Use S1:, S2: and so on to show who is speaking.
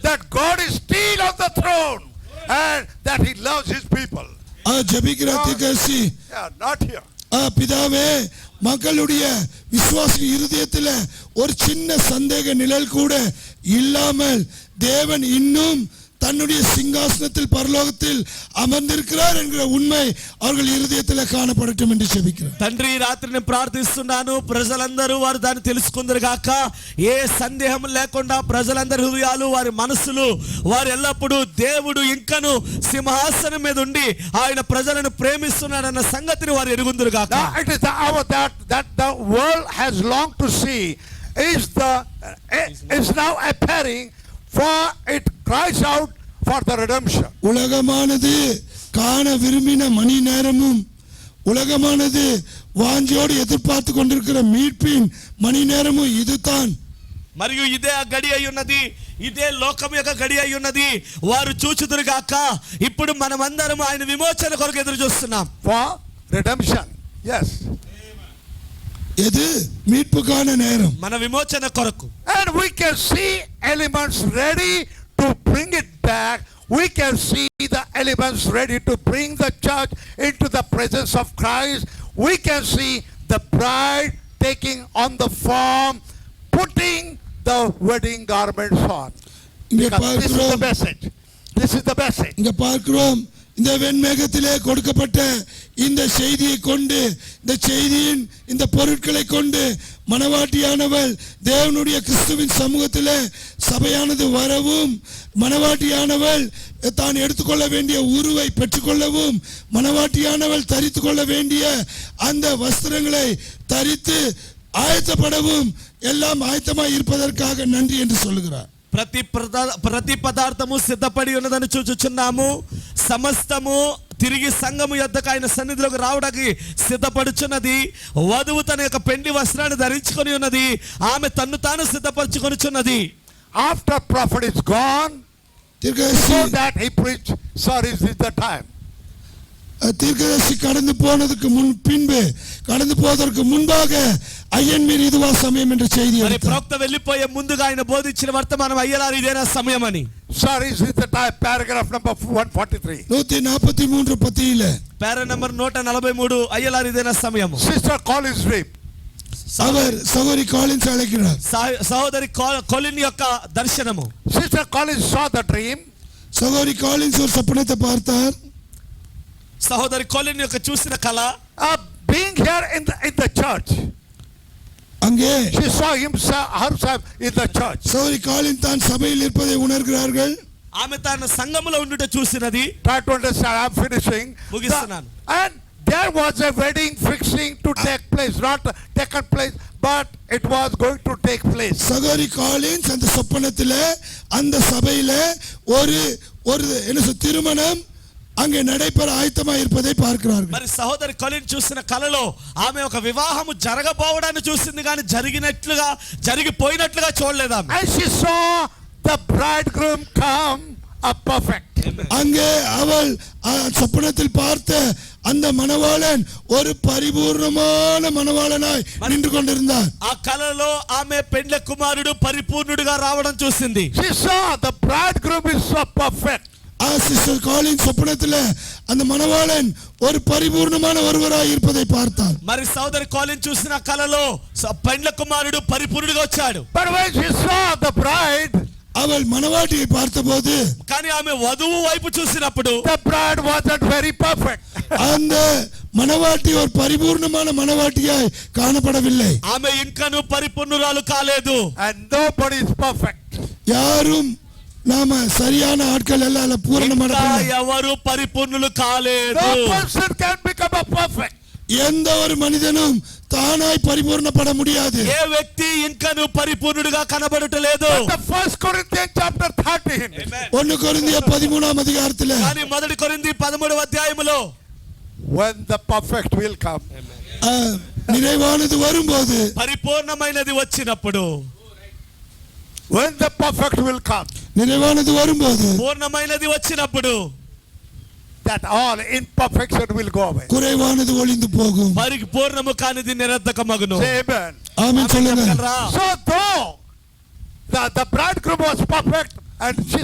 S1: that God is still on the throne and that he loves his people.
S2: ஆ, ஜெபிக்கிற தீர்க்கதரிசி
S1: Yeah, not here.
S2: ஆ, பிதாவே மக்களுடைய விசுவாச இருதயத்துல ஒரு சின்ன சந்தேக நிழல் கூட இல்லாமல் தேவன் இன்னும் தன்னுடைய சிங்காசனத்தில் பரலோகத்தில் அமர்ந்திருக்கிறார் என்கிற உண்மை அவர்கள் இருதயத்துல காணப்படட்டும் என்று ஜெபிக்கிறேன்
S3: తండ్రి ఈ రాత్రిని ప్రార్థిస్తున్నాను ప్రజలందరూ వారు దాన్ని తెలుసుకుందరు గాక ఏ సందేహం లేకుండా ప్రజలందరి హృదయాలు వారి మనసులు వారు ఎల్లప్పుడూ దేవుడు ఇంకను సింహాసనం మీద ఉండి ఆయన ప్రజలను ప్రేమిస్తున్నాడన్న సంగతిని వారు ఎరుగుందరు గాక
S1: Now it is the hour that, that the world has longed to see is the eh, is now appearing for it cries out for the redemption.
S2: உலகமானது காண விரும்பின மணி நேரமும் உலகமானது வாஞ்சையோடு எதிர்பார்த்து கொண்டிருக்கிற மீட்பின் மணி நேரமும் இதுதான்
S3: మరియు ఇదే ఆ గడి అయి ఉన్నది ఇదే లోకం యొక్క గడి అయి ఉన్నది వారు చూచుదురు గాక ఇప్పుడు మనమందరం ఆయన విమోచన కొరకు ఎదురు చూస్తున్నాం
S1: For redemption. Yes.
S2: எது மீட்புக்கான நேரம்
S3: మన విమోచన కొరకు
S1: And we can see elements ready to bring it back. We can see the elements ready to bring the church into the presence of Christ. We can see the bride taking on the form, putting the wedding garments on.
S2: இங்கே
S1: Because this is the
S2: பார்க்கிறோம்
S1: message. This is the message.
S2: இங்க பார்க்கிறோம் இந்த வெண்மேகத்திலே கொடுக்கப்பட்ட இந்த செய்தியை கொண்டு இந்த செய்தியின் இந்த பொருட்களை கொண்டு மணவாட்டியானவள் தேவனுடைய கிறிஸ்துவின் சமூகத்திலே சபையானது வரவும் மணவாட்டியானவள் தான் எடுத்துக்கொள்ள வேண்டிய உருவை பெற்றுக்கொள்ளவும் மணவாட்டியானவள் தரித்து கொள்ள வேண்டிய அந்த வஸ்திரங்களை தரித்து ஆயத்தப்படவும் எல்லாம் ஆயத்தமாய் இருப்பதற்காக நன்றி என்று சொல்லுகிறார்
S3: ప్రతి ప్రదా- ప్రతి పదార్థము సిద్ధపడి ఉన్నదని చూచుచున్నాము సమస్తము తిరిగి సంఘము యొద్దకు ఆయన సన్నిధిలోకి రావడానికి సిద్ధపడుచున్నది వధువు తన యొక్క పెండి వస్త్రాన్ని ధరించుకొని ఉన్నది ఆమె తన్ను తాను సిద్ధపరచుకొనిచున్నది
S1: After prophet is gone, so
S2: தீர்க்கதரிசி
S1: that he preached, sir, is this the time?
S2: தீர்க்கதரிசி கடந்து போனதுக்கு முன் பின்பு கடந்து போவதற்கு முன்பாக ஐயன் மீர் இதுவா சமயம் என்ற செய்தி
S3: మరి
S2: எடுத்தார்.
S3: ప్రవక్త వెళ్ళిపోయే ముందుగా ఆయన బోధించిన వర్తమానం అయ్యేలారు ఇదేనా సమయం అని
S1: Sir, is this the time? Paragraph number 143.
S2: நூத்தி நாற்பத்தி மூன்று பத்தியில
S3: పేర నెంబర్ నూట నలభై మూడు అయ్యేలారు ఇదేనా సమయము
S1: Sister call is rape.
S2: அவர் சகோரி காலின்ஸ் அழைக்கிறார்
S3: సహ- సహోదరి కో- కొలిన్ యొక్క దర్శనము
S1: Sister Collins saw the dream.
S2: சகோரி காலின்ஸ் ஒரு சப்பனத்தை பார்த்தார்
S3: సహోదరి కొలిన్ యొక్క చూసిన కళ
S1: Uh, being here in the, in the church,
S2: அங்கே
S1: she saw himself herself in the church.
S2: சகோரி காலின் தான் சபையில் இருப்பதை உணர்கிறார்கள்
S3: ఆమె తన సంఘములో ఉండుట చూసినది
S1: Try to understand. I'm finishing.
S3: Mugistunnanu.
S1: and there was a wedding fixing to take place, not taken place, but it was going to take place.
S2: சகோரி காலின்ஸ் அந்த சொப்பனத்தில அந்த சபையில ஒரு ஒரு என்ன சொல் திருமணம் அங்கே நடைபெற ஆயத்தமா இருப்பதை பார்க்கிறார்கள்
S3: మరి సహోదరి కొలిన్ చూసిన కలలో ఆమె ఒక వివాహము జరగబోవడాన్ని చూసింది కానీ జరిగినట్లుగా జరిగిపోయినట్లుగా చూడలేదు ఆమె
S1: And she saw the bridegroom come up perfect.
S2: அங்கே அவள் அ, சொப்பனத்தில் பார்த்த அந்த மணவாளன் ஒரு பரிபூர்ணமான மணவாளனாய் நின்று கொண்டிருந்தார்
S3: ఆ కలలో ఆమె పెండ్ల కుమారుడు పరిపూర్ణుడిగా రావడం చూసింది
S1: She saw the bridegroom is so perfect.
S2: ஆ, சிஸ்டர் காலின் சொப்பனத்தில் அந்த மணவாளன் ஒரு பரிபூர்ணமான ஒருவராய் இருப்பதை பார்த்தார்
S3: మరి సోదరి కాలిన్ చూసిన కలలో స- పెండ్ల కుమారుడు పరిపూర్ణుడిగా వచ్చాడు
S1: But when she saw the bride,
S2: அவள் மணவாட்டியை பார்த்தபோது
S3: కానీ ఆమె వధువు వైపు చూసినప్పుడు
S1: the bride wasn't very perfect.
S2: அந்த மணவாட்டி ஒரு பரிபூர்ணமான மணவாட்டியாய் காணப்படவில்லை
S3: ఆమె ఇంకను పరిపూర్ణురాలు కాలేదు
S1: And nobody is perfect.
S2: யாரும் நாம சரியான ஆட்கள் எல்லாம் பூரணமான
S3: ఇంకా ఎవరు పరిపూర్ణులు కాలేదు
S1: No person can become a perfect.
S2: எந்த ஒரு மனிதனும் தானாய் பரிபூர்ணப்பட முடியாது
S3: ఏ వ్యక్తి ఇంకను పరిపూర్ణుడిగా కనబడటలేదు
S1: The first Corinthians chapter 13.
S2: ஒன்னு கொரிந்திய பதிமூணாம் அதிகாரத்துல
S3: కానీ మొదటి కొరింది పదమూడవ అధ్యాయములో
S1: When the perfect will come.
S2: அஹ், நிறைவானது வரும்போது
S3: పరిపూర్ణమైనది వచ్చినప్పుడు
S1: When the perfect will come.
S2: நிறைவானது வரும்போது
S3: పూర్ణమైనది వచ్చినప్పుడు
S1: That all imperfection will go away.
S2: குறைவானது ஒளிந்து போகும்
S3: మరి పూర్ణము కానిది నిరర్ధకమగును
S1: Say amen.
S2: ஆமென் சொல்லுங்க
S3: చెప్పగలరా?
S1: So though the, the bridegroom was perfect and she